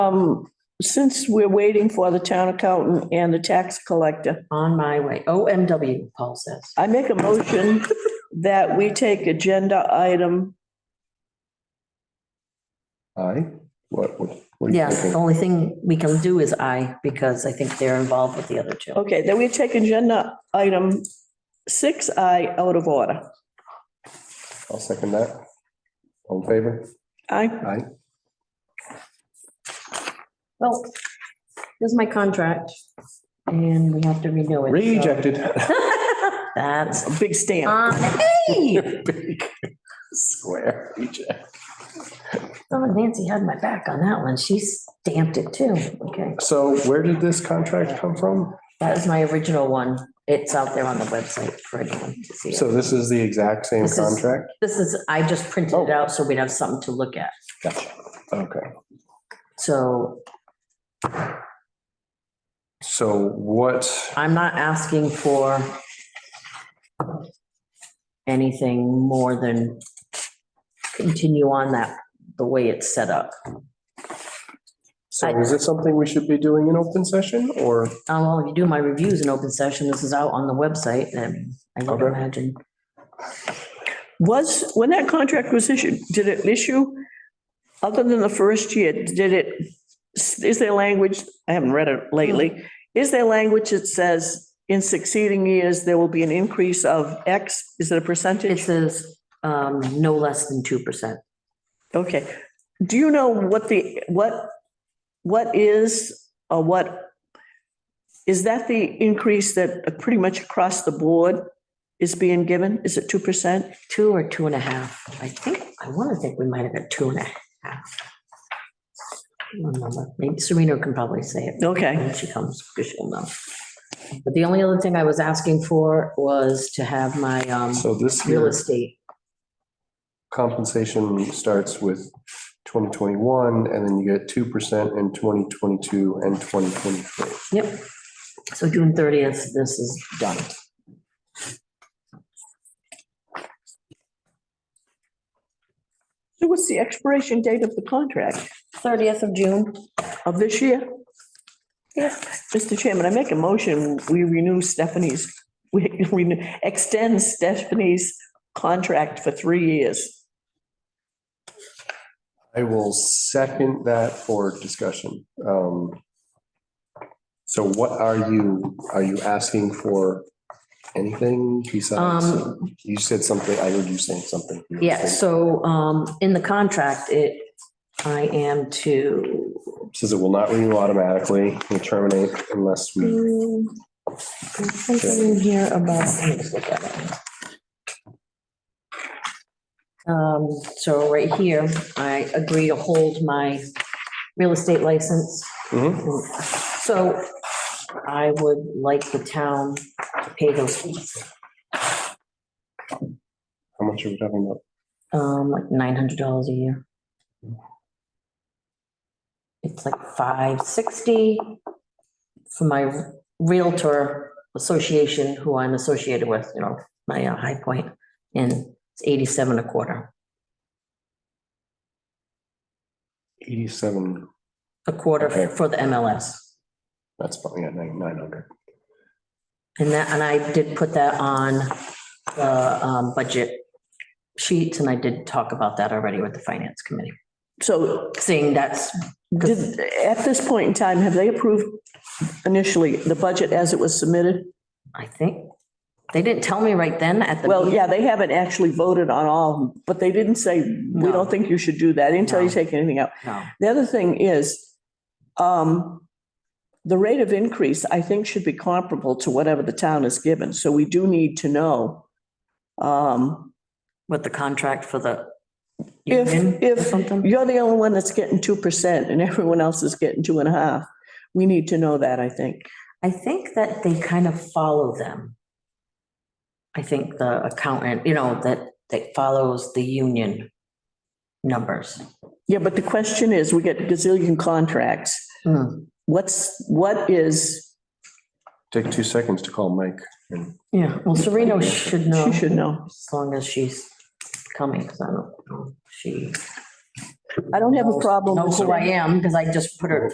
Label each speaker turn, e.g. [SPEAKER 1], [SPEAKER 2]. [SPEAKER 1] Um, since we're waiting for the town accountant and the tax collector,
[SPEAKER 2] On my way, OMW, Paul says.
[SPEAKER 1] I make a motion that we take agenda item,
[SPEAKER 3] Aye. What, what? what do you
[SPEAKER 2] Yes,
[SPEAKER 3] think?
[SPEAKER 2] the only thing we can do is I, because I think they're involved with the other two.
[SPEAKER 1] okay, that we take agenda item six I out of order.
[SPEAKER 3] I'll second that. All in favor?
[SPEAKER 1] I,
[SPEAKER 3] Aye.
[SPEAKER 2] Well, here's my contract, and we have to renew it.
[SPEAKER 3] Rejected.
[SPEAKER 2] so- That's,
[SPEAKER 1] a big stamp.
[SPEAKER 2] uh, hey,
[SPEAKER 3] Big Square reject.
[SPEAKER 2] Oh, Nancy had my back on that one. She stamped it too. Okay,
[SPEAKER 3] So where did this contract come from?
[SPEAKER 2] that was my original one. It's out there on the website for anyone to see.
[SPEAKER 3] So this is the exact same
[SPEAKER 2] This is-
[SPEAKER 3] contract?
[SPEAKER 2] This is, I just printed it out so we'd have something to look at.
[SPEAKER 3] Gotcha. Okay.
[SPEAKER 2] So
[SPEAKER 3] So what,
[SPEAKER 2] I'm not asking for anything more than continue on that, the way it's set up.
[SPEAKER 3] so is this something we should be doing in open session or?
[SPEAKER 2] Uh, Well, if you do my reviews in open session, this is out on the website, and I would
[SPEAKER 3] Okay.
[SPEAKER 2] imagine.
[SPEAKER 1] Was, when that contract was issued, did it issue, other than the first year, did it, is there language, I haven't read it lately, is there language that says in succeeding years, there will be an increase of X? Is it a percentage?
[SPEAKER 2] It says um, no less than 2%.
[SPEAKER 1] Okay, do you know what the, what, what is, or what, is that the increase that pretty much across the board is being given? Is it 2%?
[SPEAKER 2] Two or two and a half. I think, I want to think we might have got two and a half. I don't remember. Maybe Serena can probably say it.
[SPEAKER 1] Okay,
[SPEAKER 2] when she comes, because she'll know. But the only other thing I was asking for was to have my um,
[SPEAKER 3] So this
[SPEAKER 2] real
[SPEAKER 3] year
[SPEAKER 2] estate.
[SPEAKER 3] compensation starts with twenty twenty-one and then you get two percent in twenty twenty-two and twenty twenty-three.
[SPEAKER 2] Yep. So June thirtieth, this is done.
[SPEAKER 1] so what's the expiration date of the contract
[SPEAKER 2] Thirtieth of June.
[SPEAKER 1] of this year? Yes. Mr. Chairman, I make a motion, we renew Stephanie's, we renew- extend Stephanie's contract for three years.
[SPEAKER 3] I will second that for discussion. Um, So what are you, are you asking for anything besides?
[SPEAKER 2] Um,
[SPEAKER 3] You said something, I heard you saying something.
[SPEAKER 2] yeah, so um, in the contract, it, I am to,
[SPEAKER 3] Says it will not renew automatically, will terminate unless we,
[SPEAKER 2] there's something in here about, let me just look at it. Um, so right here, I agree to hold my real estate license
[SPEAKER 3] Mhm.
[SPEAKER 2] So I would like the town to pay those fees,
[SPEAKER 3] how much are we talking about?
[SPEAKER 2] um, like nine hundred dollars a year. It's like five sixty for my Realtor Association, who I'm associated with, you know, my uh, High Point, and it's eighty-seven a quarter.
[SPEAKER 3] Eighty-seven,
[SPEAKER 2] A quarter
[SPEAKER 3] Okay.
[SPEAKER 2] for the MLS.
[SPEAKER 3] that's probably at nine, nine hundred.
[SPEAKER 2] And that, and I did put that on the um, budget sheets, and I did talk about that already with the finance committee,
[SPEAKER 1] So
[SPEAKER 2] seeing that's,
[SPEAKER 1] Did, at this point in time, have they approved initially the budget as it was submitted?
[SPEAKER 2] I think, they didn't tell me right then at the.
[SPEAKER 1] Well,
[SPEAKER 2] meeting.
[SPEAKER 1] yeah, they haven't actually voted on all, of them, but they didn't say, we
[SPEAKER 2] No.
[SPEAKER 1] don't think you should do that until you
[SPEAKER 2] No.
[SPEAKER 1] take anything out.
[SPEAKER 2] No.
[SPEAKER 1] The other thing is, um, the rate of increase, I think, should be comparable to whatever the town is given. So we do need to know, um,
[SPEAKER 2] With the contract for the.
[SPEAKER 1] If-
[SPEAKER 2] union or
[SPEAKER 1] if-
[SPEAKER 2] Something,
[SPEAKER 1] you're the only one that's getting 2% and everyone else is getting two and a half. We need to know that, I think.
[SPEAKER 2] I think that they kind of follow them. I think the accountant, you know, that, that follows the union numbers.
[SPEAKER 1] Yeah, but the question is, we get gazillion contracts.
[SPEAKER 2] Hmm,
[SPEAKER 1] What's, what is,
[SPEAKER 3] Take two seconds to call Mike and
[SPEAKER 2] Yeah, well, Sereno should know.
[SPEAKER 1] she should know.
[SPEAKER 2] As long as she's coming, because I don't know, if she
[SPEAKER 1] I don't have a problem
[SPEAKER 2] Know
[SPEAKER 1] with
[SPEAKER 2] who I am because I just put her